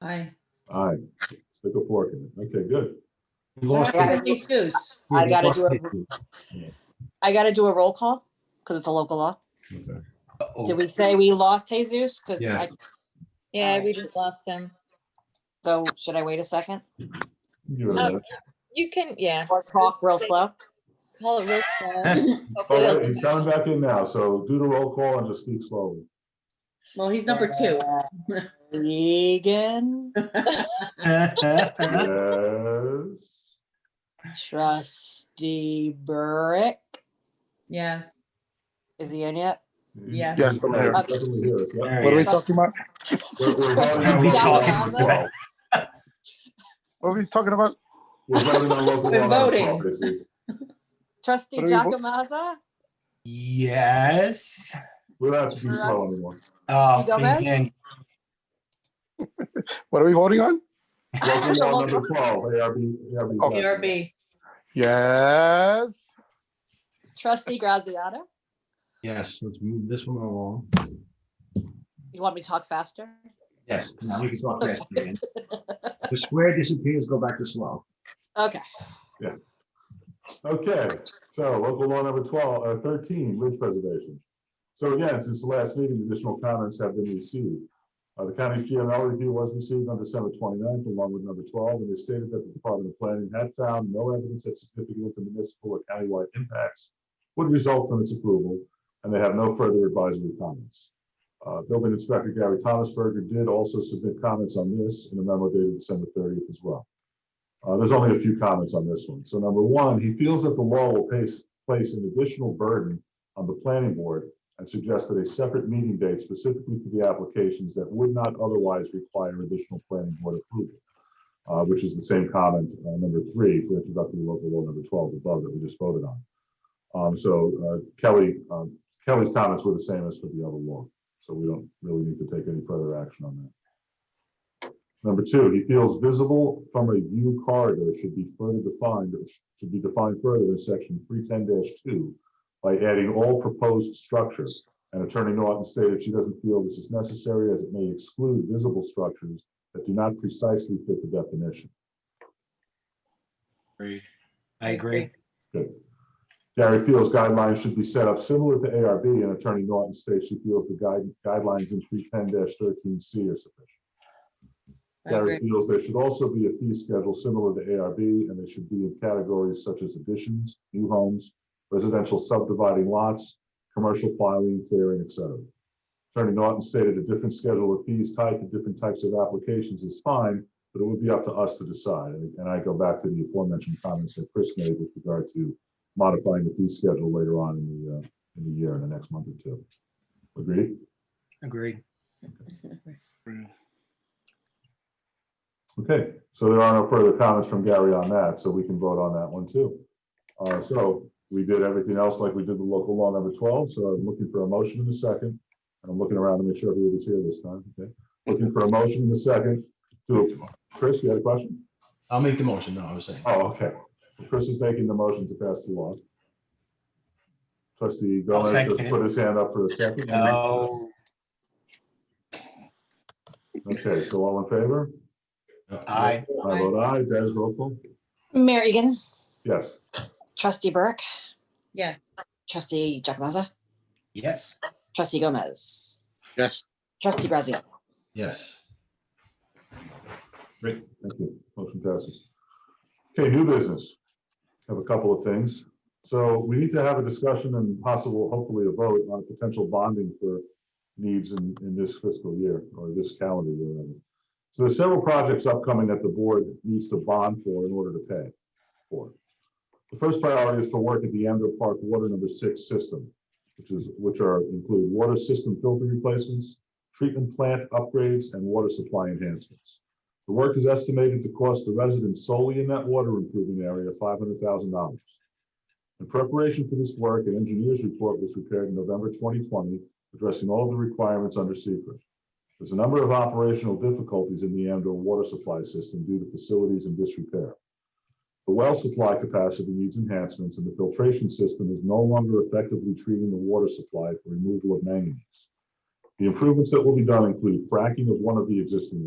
Aye. All right, stick a fork in it. Okay, good. We lost I gotta the- do- Jesus. I we gotta lost do it. the- I gotta do a roll call because it's a local law. Okay. Oh. Uh-oh. Did we say we lost Jesus? Because Yeah. I, Yeah, Alright. we just lost him. so should I wait a second Give it a Oh, minute. You can, yeah, or talk real slow? call it real slow. All right, Hopefully He's it'll- coming back in now, so do the roll call and just speak slowly. Well, he's number two. Regan, Yes. trustee Burrick, Yes. is he in yet? Yes. Yes, I'm here. He doesn't hear us, yeah. There What are he we is. talking about? We're- we're Trustee voting on We're local talking law. about- What are we talking about? We're voting on local We're law, that's all voting. this is. Trustee What are we Jacomaza, Yes. We don't have to be For slow us. anymore. Oh, You go he's back? in. What are we voting on? Local law number twelve, ARB, ARB. Okay. ARB. Yes. trustee Graziano, Yes, let's move this one along. you want me to talk faster? Yes, now we can talk fast again. The square disappears, go back to slow. Okay, Okay, so local law number twelve, uh, thirteen, ridge preservation. So again, since the last meeting, additional comments have been received. Uh, the county's GML review was received on December 29th, along with number twelve, and they stated that the Department of Planning had found no evidence that significant municipal or countywide impacts would result from its approval, and they have no further advisory comments. Uh, building inspector Gary Thomasberger did also submit comments on this in a memo dated December thirtieth as well. Uh, there's only a few comments on this one. So number one, he feels that the law will place, place an additional burden on the planning board and suggested a separate meeting date specifically for the applications that would not otherwise require additional planning board approval. uh, which is the same comment, uh, number three, for introductory local law number twelve above that we just voted on. Um, so, uh, Kelly, um, Kelly's comments were the same as for the other law, so we don't really need to take any further action on that. Number two, he feels visible from a view corridor should be further defined, or sh- should be defined further in section three ten two by adding all proposed structures. And Attorney Norton stated she doesn't feel this is necessary as it may exclude visible structures that do not precisely fit the definition. I agree. Good. Gary feels guidelines should be set up similar to ARB and Attorney Norton states she feels the guide, guidelines in three ten thirteen C are sufficient. I Gary agree. feels there should also be a fee schedule similar to ARB, and they should be in categories such as additions, new homes, residential subdividing lots, commercial filing, clearing, et cetera. Attorney Norton stated a different schedule of fees tied to different types of applications is fine, but it would be up to us to decide. And and I go back to the aforementioned comments that Chris made with regard to modifying the fee schedule later on in the, uh, in the year, in the next month or two. Agreed? Agree. Okay, so there are no further comments from Gary on that, so we can vote on that one too. Uh, so we did everything else like we did the local law number twelve, so I'm looking for a motion in a second. And I'm looking around to make sure everybody's here this time, okay? Looking for a motion in a second to, Chris, you had a question? I'll make the motion, no, I was saying. Oh, okay. Chris is making the motion to pass the law. Trustee I'll Gomez second just it. put his hand up for a second. No. Okay, so all in favor? Aye. I vote aye. Des, roll call? Mayor Egan, Yes. trustee Burke, Yes. trustee Jacomaza, Yes. trustee Gomez, Yes. trustee Graziano. Yes. Great, thank you. Motion passes. Okay, new business. Have a couple of things. So we need to have a discussion and possible, hopefully a vote on potential bonding for needs in, in this fiscal year or this calendar year. rather. So there's several projects upcoming that the board needs to bond for in order to pay for. The first priority is for work at the Amber Park Water Number Six System, which is, which are include water system filter replacements, treatment plant upgrades, and water supply enhancements. The work is estimated to cost the residents solely in that water improvement area five hundred thousand dollars. In preparation for this work, an engineer's report was prepared in November twenty twenty, addressing all of the requirements under secret. There's a number of operational difficulties in the Amdo water supply system due to facilities in disrepair. The well supply capacity needs enhancements, and the filtration system is no longer effectively treating the water supply for removal of manganese. The improvements that will be done include fracking of one of the existing